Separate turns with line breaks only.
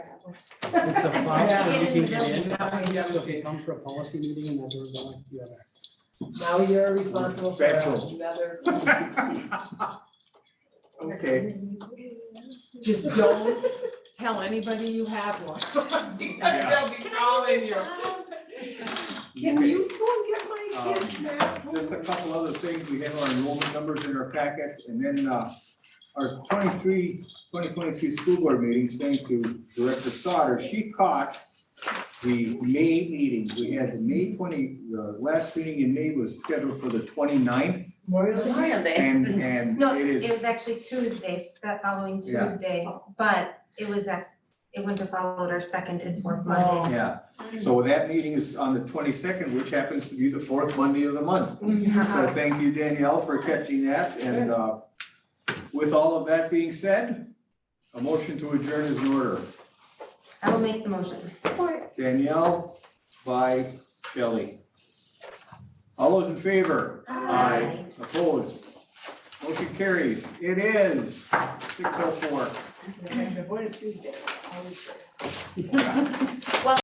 It's a file so you
Get in
can
the
get in.
building.
Yeah, So if you come for a policy meeting and that door's on, you have access.
Now you're responsible for
Special.
another.
Okay.
Just don't tell anybody you have one.
Yeah.
They'll be calling you. Can you go
Um,
and get my kids
Just a
now?
couple other things, we have our enrollment numbers in our packet, and then, uh, our 23 2023 school board meetings, thank you, Director Sauter, she caught the May meetings, we had the May twenty, the last meeting in May was scheduled for the 29th,
Memorial Day.
and, and
No,
it
it
is,
was actually Tuesday, that following
Yeah.
Tuesday, but it was a, it wouldn't have followed our second and fourth Monday.
yeah. So that meeting is on the twenty-second, which happens to be the fourth Monday of the month.
Mm-hmm.
So
Uh-huh.
thank you, Danielle, for catching that, and uh, with all of that being said, a motion to adjourn is in order.
I will make the motion.
Danielle by Shelley. All those in favor?
Aye.
Opposed? Motion carries. It is six oh four.
Avoid a Tuesday, always.